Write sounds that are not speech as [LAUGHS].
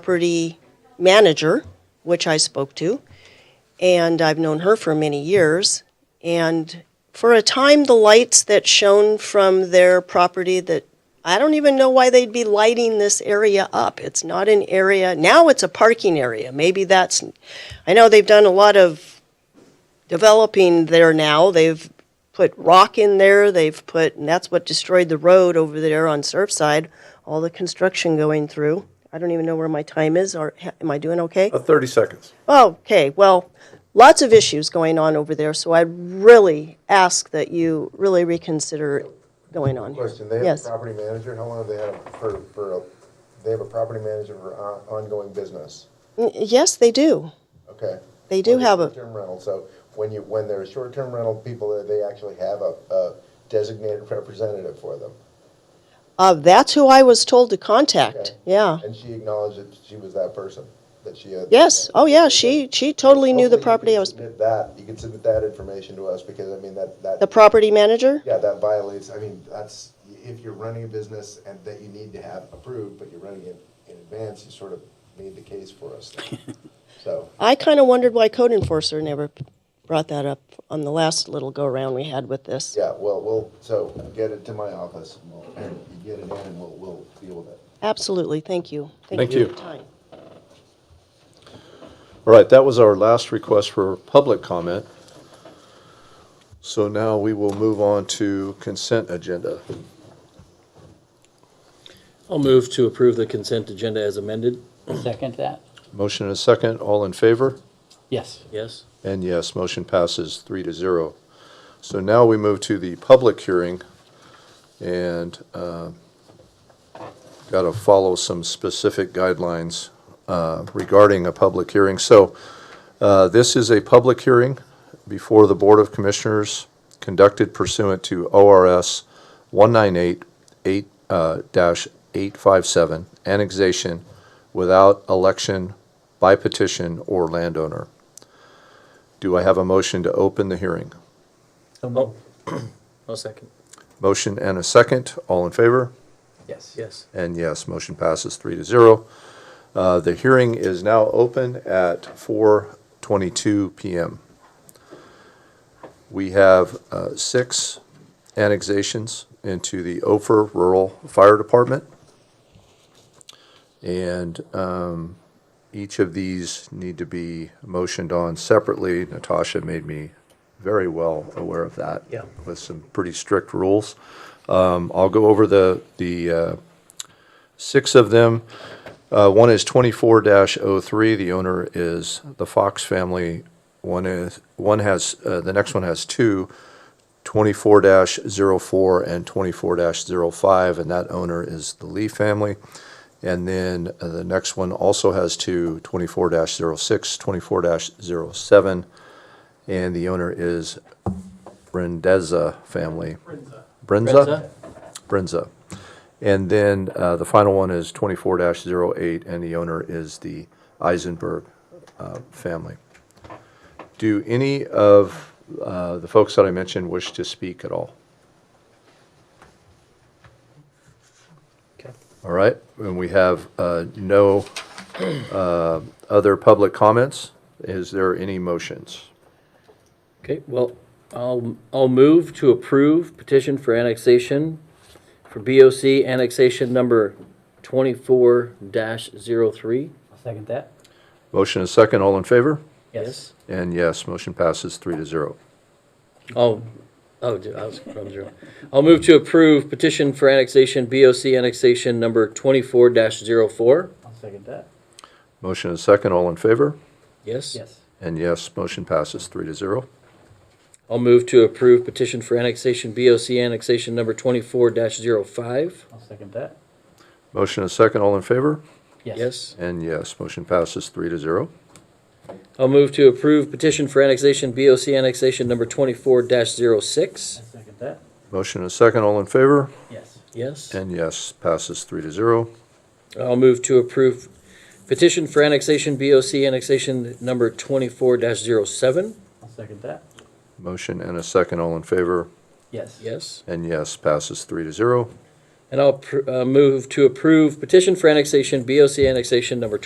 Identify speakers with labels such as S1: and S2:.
S1: property manager, which I spoke to, and I've known her for many years. And for a time, the lights that shone from their property that I don't even know why they'd be lighting this area up. It's not an area, now it's a parking area. Maybe that's, I know they've done a lot of developing there now. They've put rock in there, they've put, and that's what destroyed the road over there on Surfside, all the construction going through. I don't even know where my time is, or ha- am I doing okay?
S2: Uh, 30 seconds.
S1: Okay, well, lots of issues going on over there, so I really ask that you really reconsider going on.
S3: Question, they have a
S1: Yes.
S3: property manager, how long have they had it for, for, a- they have a property manager for on- ongoing business,
S1: N- Mm, Yes, they do.
S3: okay?
S1: They do
S3: Or
S1: have a-
S3: Short-term rental, so when you, when they're short-term rental people, they actually have a, a designated [LAUGHS] representative for them.
S1: Uh, that's who I was told to contact,
S3: Okay.
S1: yeah.
S3: And she acknowledged that she was that person, that she had.
S1: Yes, oh yeah, she, she totally knew the
S3: Hopefully you
S1: property
S3: can
S1: I was,
S3: Submit that, you can submit that information to us, because I mean, that, that.
S1: the property manager?
S3: Yeah, that violates, I mean, that's, if you're running a business and that you need to have approved, but you're running it in advance, you sort of made the case for us. then. So,
S1: I kind of wondered why code enforcer never brought that up on the last little go-around we had with this.
S3: yeah, well, we'll, so get it to my office and we'll, and you get it in and we'll, we'll deal with it.
S1: Absolutely, thank you.
S2: Thank
S1: for
S2: you.
S1: your time.
S2: All right, that was our last request for public comment. So now we will move on to consent agenda.
S4: I'll move to approve the consent agenda as amended.
S5: Second that?
S2: Motion and a second, all in favor?
S5: Yes.
S4: Yes.
S2: And yes, motion passes three to zero. So now we move to the public hearing and got to follow some specific guidelines uh, regarding a public hearing. So uh, this is a public hearing before the Board of Commissioners conducted pursuant to ORS uh, 198-857, annexation without election by petition or landowner. Do I have a motion to open the hearing?
S5: So
S4: moved. I'll second.
S2: Motion and a second. All in favor?
S5: Yes.
S4: Yes.
S2: And yes, motion passes three to zero. Uh, The hearing is now open at 4:22 PM. We have uh, six annexations into the Ophir Rural Fire Department. And um, each of these need to be motioned on separately. Natasha made me very well aware of that.
S4: Yeah.
S2: With some pretty strict rules. Um, I'll go over the, the uh, six of them. Uh, One is 24-03, the owner is the Fox family. One is, one has, uh, the next one has two, 24-04 and 24-05, and that owner is the Lee family. And then uh, the next one also has two, 24-06, 24-07, and the owner is Brendeza family. Brenza?
S4: Brenza.
S2: Brenza. And then uh, the final one is 24-08, and the owner is the Eisenberg uh, family. Do any of uh, the folks that I mentioned wish to speak at all? All right, and we have uh, no uh, other public comments. Is there any motions?
S4: Okay, well, I'll, I'll move to approve petition for annexation for BOC annexation number twenty-four dash zero three.
S5: I'll second that?
S2: Motion and second, all in favor?
S4: Yes.
S2: And yes, motion passes three to zero.
S4: Oh, oh, d- I was from zero. I'll move to approve petition for annexation, BOC annexation number twenty-four dash zero four.
S5: I'll second that?
S2: Motion and second, all in favor?
S4: Yes.
S5: Yes.
S2: And yes, motion passes three to zero.
S4: I'll move to approve petition for annexation, BOC annexation number twenty-four dash zero five.
S5: I'll second that?
S2: Motion and second, all in favor?
S4: Yes.
S2: And yes, motion passes three to zero.
S4: I'll move to approve petition for annexation, BOC annexation number twenty-four dash zero six.
S5: I'll second that?
S2: Motion and second, all in favor?
S5: Yes.
S4: Yes.
S2: And yes, passes three to zero.
S4: I'll move to approve petition for annexation, BOC annexation number twenty-four dash zero seven.
S5: I'll second that?
S2: Motion and a second, all in favor?
S5: Yes.
S4: Yes.
S2: And yes, passes three to zero.
S4: And I'll pr- uh, move to approve petition for annexation, BOC annexation number